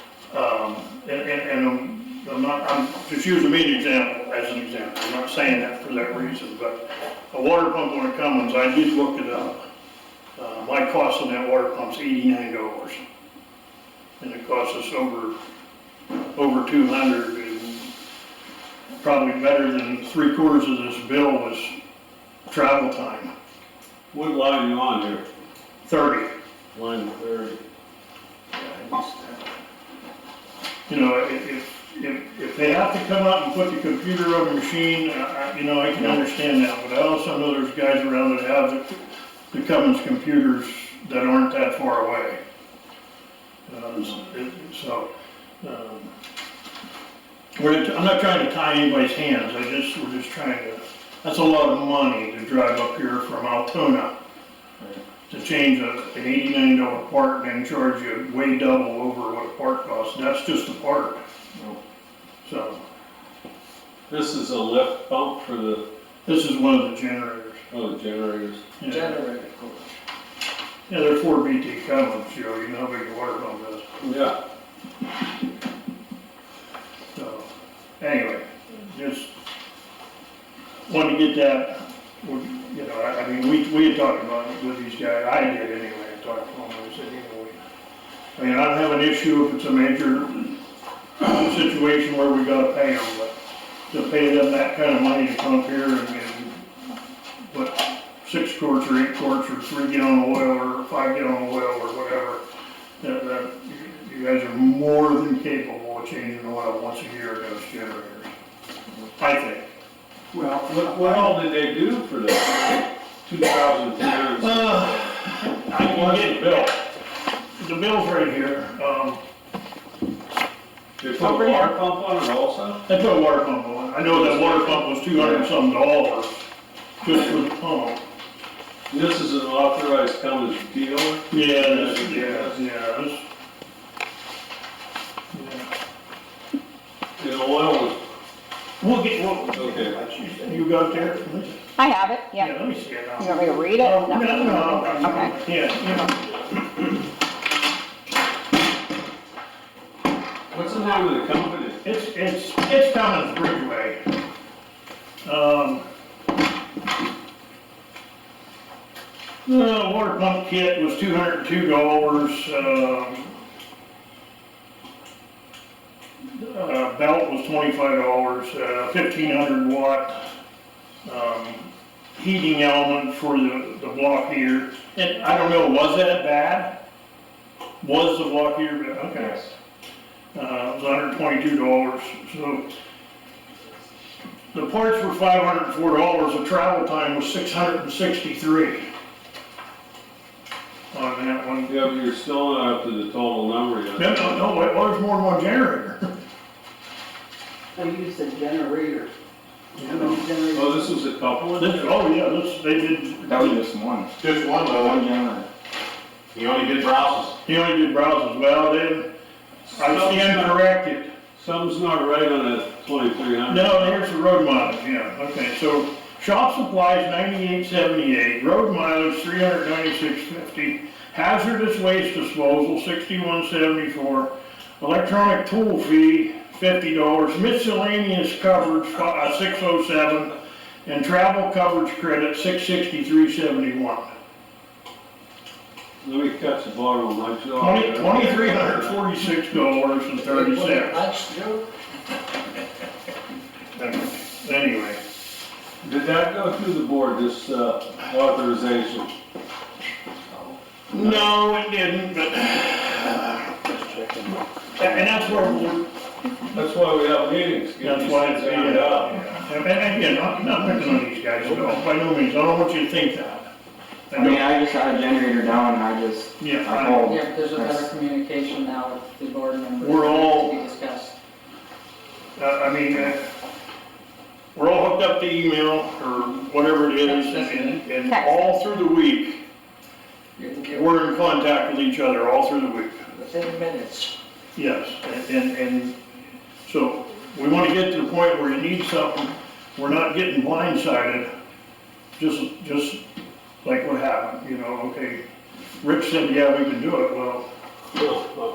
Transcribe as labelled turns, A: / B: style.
A: Um, and, and, and I'm not, I'm just using me an example, as an example, I'm not saying that for that reason, but a water pump on a Cummins, I did look it up. Uh, my cost on that water pump's eighty-nine dollars. And it costs us over, over two hundred and probably better than three quarters of this bill was travel time,
B: What line you on here?
A: thirty.
B: Line thirty.
A: You know, if, if, if, if they have to come out and put the computer on the machine, I, I, you know, I can understand that, but I also know there's guys around that have the, the Cummins computers that aren't that far away. Uh, so, it- so, um, we're, I'm not trying to tie anybody's hands, I just, we're just trying to, that's a lot of money to drive up here from Altoona to change a, an eighty-nine dollar part and then charge you way double over what a part costs, and that's just a part. So,
B: This is a lift pump for the,
A: this is one of the generators.
B: oh, the generators.
A: Yeah,
C: Generator cooler.
A: Yeah, they're four BT Cummins, you know, you know how big the water pump is,
B: Yeah.
A: so, anyway, just wanted to get that, we- you know, I, I mean, we, we had talked about it with these guys, I did anyway, I talked to them, I said, you know, we- I mean, I don't have an issue if it's a major situation where we gotta pay them, but to pay them that kind of money to come up here and, and what, six quarts or eight quarts or three gallon oil or five gallon oil or whatever, that, that, you- you guys are more than capable of changing oil once a year in those generators. I think.
C: Well,
B: What, what all did they do for that? Two thousand three hundred.
A: Uh, I can
B: What's
A: get
B: the
A: it, Bill.
B: bill?
A: The bill's right here, um,
B: They put a water pump on it also?
A: I put a water pump on, I know that water pump was two hundred and some dollars just for the pump.
B: This is an authorized Cummins dealer?
A: Yeah,
B: this-
A: yeah,
B: yeah,
A: yeah.
B: And oil was,
A: We'll get, we'll,
B: okay.
A: you got there?
D: I have it, yeah.
A: Let me see it now.
D: You want me to read it?
A: Oh, No, no, no, no.
D: Okay.
A: Yeah,
B: What's the name of the company?
A: yeah, it's, it's, it's Cummins Bridgeway. Um, The water pump kit was two hundred and two dollars, um, uh, belt was twenty-five dollars, uh, fifteen hundred watt, um, heating element for the, the block heater. And I don't know, was that bad? Was the block heater bad? Okay. Uh, it was hundred twenty-two dollars, so. The parts were five hundred and four dollars, the travel time was six hundred and sixty-three. On that one.
B: Yeah, but you're still not up to the total number yet.
A: No, no, no, wait, well, there's more than one generator.
C: I used a generator. How many
B: Oh,
C: generators?
B: this was a couple of them?
A: This- oh, yeah, this, they did,
E: That was just one,
F: Just one
E: one
F: though,
E: generator.
F: he only did browses.
A: he only did browsers, well, then, I stand corrected.
B: Something's not right on that twenty-three hundred.
A: No, here's the road mileage, yeah, okay, so shop supplies ninety-eight seventy-eight, road mileage three hundred ninety-six fifty, hazardous waste disposal sixty-one seventy-four, electronic tool fee fifty dollars, miscellaneous coverage six oh seven, and travel coverage credit six sixty-three seventy-one.
B: Let me catch the bottom of my jaw.
A: Twenty, twenty-three hundred forty-six dollars and thirty cents.
C: That's true.
A: Anyway,
B: Did that go through the board, this uh, authorization?
A: no, it didn't, but, and that's where we're,
B: That's why we have meetings. get
A: That's
B: these
A: why
B: things
A: it's,
B: ironed out.
A: yeah, and and again, I'm not picking on these guys at all, by no means, I don't want you to think that. I
E: I mean,
A: don't-
E: I just had a generator down and I just,
A: Yeah,
E: I
A: I,
E: called.
C: Yeah, but there's a better
E: That's-
C: communication now with the board members.
A: We're all-
C: To be discussed.
A: I- I mean, uh, we're all hooked up to email or whatever it is, and, and all through the week,
C: You can get
A: we're in contact with each other all through the week.
C: within minutes.
A: Yes, and- and, and so we want to get to the point where you need something, we're not getting blindsided, just, just like what happened, you know, okay, Rich said, yeah, we can do it, well,
B: No, no.